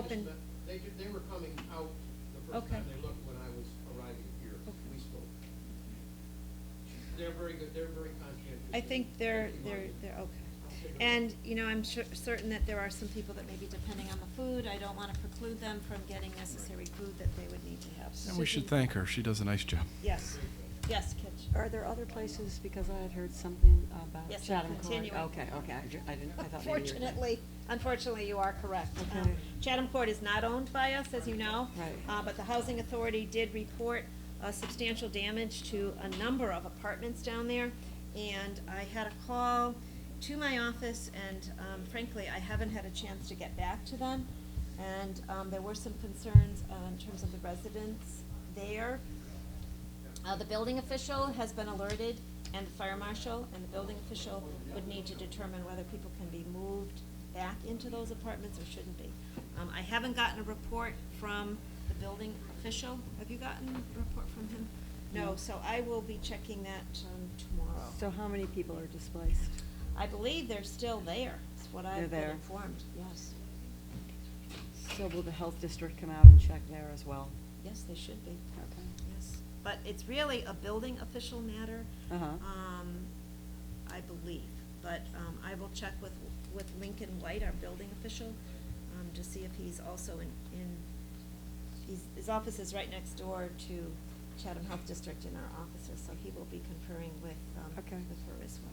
Open. But They, ju- they were coming out the first Okay. time they looked when I was arriving here, Okay. we spoke. They're very good, they're very conscientious. I think they're, Thank you, they're, Margaret. they're I'll okay. take a And, look. you know, I'm sure, certain that there are some people that may be depending on the food, I don't wanna preclude them from getting necessary food that they would need to have. And we should Susan- thank her. She does a nice job. Yes, yes, Kitch. Are there other places, because I had heard something about Yes, Chatham Court? continuing. Okay, okay, I ju- I didn't, I thought maybe you were. Unfortunately, unfortunately, you are correct. Um, Okay. Chatham Court is not owned by us, as you know. Right. Uh, but the Housing Authority did report, uh, substantial damage to a number of apartments down there. And I had a call to my office and, um, frankly, I haven't had a chance to get back to them. And, um, there were some concerns, uh, in terms of the residents there. Uh, the building official has been alerted, and the fire marshal, and the building official would need to determine whether people can be moved back into those apartments or shouldn't be. Um, I haven't gotten a report from the building official. Have you gotten a report from him? No, No. so I will be checking that, um, tomorrow. So how many people are displaced? I believe they're still there, is what I've They're been there. informed, yes. So will the health district come out and check there as well? Yes, they should be. Okay. Yes, but it's really a building official matter. Uh-huh. Um, I believe, but, um, I will check with, with Lincoln White, our building official, um, to see if he's also in, in, he's, his office is right next door to Chatham Health District in our offices, so he will be conferring with, um, with Okay. her as well.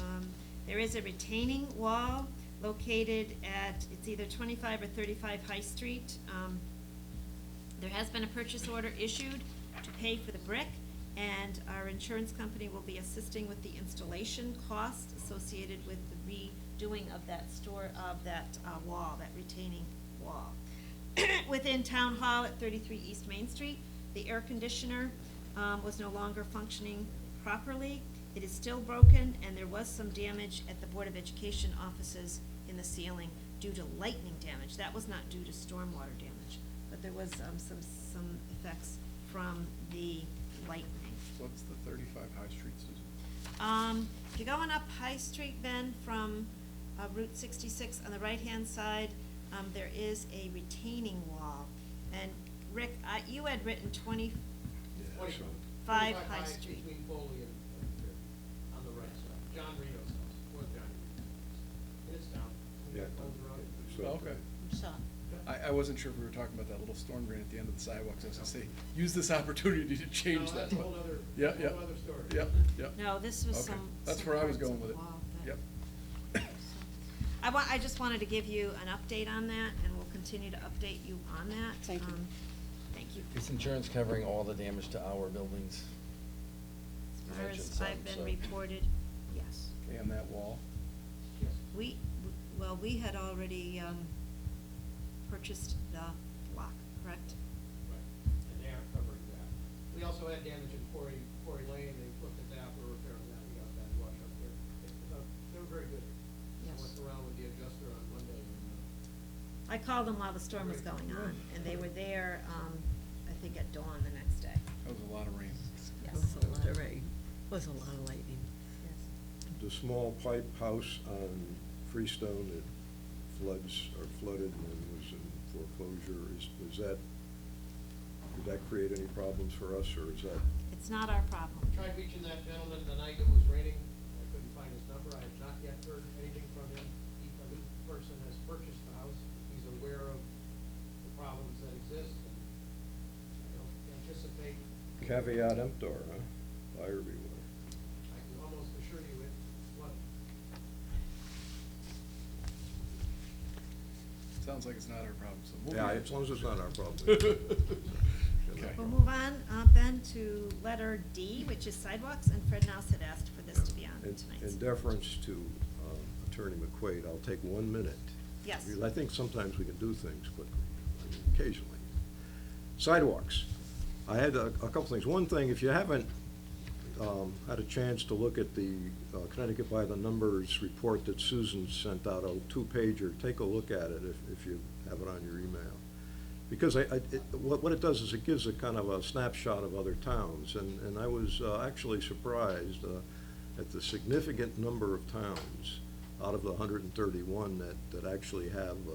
Um, There is a retaining wall located at, it's either twenty-five or thirty-five High Street. Um, There has been a purchase order issued to pay for the brick, and our insurance company will be assisting with the installation costs associated with the redoing of that store, of that uh, wall, that retaining wall. Within Town Hall at thirty-three East Main Street, the air conditioner um, was no longer functioning properly. It is still broken, and there was some damage at the Board of Education offices in the ceiling due to lightning damage. That was not due to stormwater damage, but there was um, some, some effects from the lightning. What's the thirty-five High Street, Susan? Um, if you're going up High Street, Ben, from uh, Route sixty-six on the right-hand side, um, there is a retaining wall. And Rick, I, you had written twenty-five Twenty- twenty-five High Street. Between Foley and, uh, on the right side, John Reno's house, what John Reno's house. It's down. We got Foley Road. Okay. I'm sorry. I, I wasn't sure if we were talking about that little storm drain at the end of the sidewalks. I was gonna say, use this opportunity to change No, that. that's a whole other- Yeah, that's a yeah. whole other story. Yep, yep. No, this was Okay. some. That's some where I was parts of going the with it. wall that- Yep. I wa, I just wanted to give you an update on that, and we'll continue to update you on that. Thank you. Um, Thank you. Is insurance covering all the damage to our buildings? As You far mentioned as I've some, been so- reported, yes. And that wall. Yes. We, well, we had already, um, purchased the block, correct? Right, and they are covering that. We also had damage in Quarry, Quarry Lane, they looked at that, we're repairing that, we got that wash up there. It- uh, They were very good. I Yes. went around with the adjuster on Monday and, uh, I called them while the storm was going on, and they were there, um, I think at dawn the next day. That was a lot of rain. It Yes. was a lot of rain, It was a lot of lightning. Yes. The small pipe house on Freestone that floods, or flooded and was in foreclosure, is, was that, did that create any problems for us, or is that? It's not our problem. Tried reaching that gentleman the night it was raining, I couldn't find his number, I have not yet heard anything from him. He, a new person has purchased the house, he's aware of the problems that exist, and I don't anticipate, Caveat emptor, huh? Buyer beware. I can almost assure you it wasn't. Sounds like it's not our problem, so we'll be. Yeah, as long as it's not our problem. Okay. We'll move on, uh, Ben, to letter D, which is sidewalks, and Fred Nouse had asked for this to be on In- tonight's. In deference to um, Attorney McQuaid, I'll take one minute. Yes. Because I think sometimes we can do things quickly, I mean, occasionally. Sidewalks. I had a a couple things. One thing, if you haven't um, had a chance to look at the uh, Connecticut by the Numbers report that Susan sent out, a two-pager, take a look at it if if you have it on your email. Because I, I, it- what, what it does is it gives a kind of a snapshot of other towns, and, and I was uh, actually surprised uh, at the significant number of towns out of the hundred and thirty-one that, that actually have uh, a